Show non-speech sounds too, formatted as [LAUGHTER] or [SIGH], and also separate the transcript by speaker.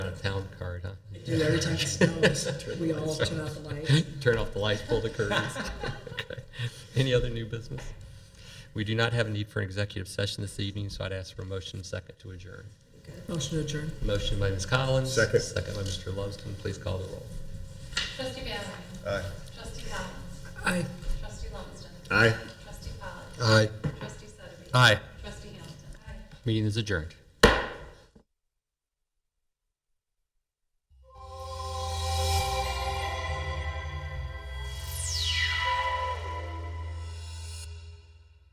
Speaker 1: a town card, huh? [LAUGHS]
Speaker 2: Do every time it snows, we all turn off the lights.
Speaker 1: Turn off the lights, pull the curtains. Okay. Any other new business? We do not have a need for an executive session this evening, so I'd ask for a motion and second to adjourn.
Speaker 2: Motion to adjourn.
Speaker 1: Motion by Ms. Collins.
Speaker 3: Second.
Speaker 1: Second by Mr. Loveson. Please call the roll.
Speaker 4: Trustee Valerie.
Speaker 3: Aye.
Speaker 4: Trustee Collins.
Speaker 2: Aye.
Speaker 4: Trustee Lumsden.
Speaker 3: Aye.
Speaker 4: Trustee Polly.
Speaker 1: Aye.
Speaker 4: Trustee Sotterby.
Speaker 1: Aye.
Speaker 4: Trustee Hamilton.
Speaker 1: Meeting is adjourned.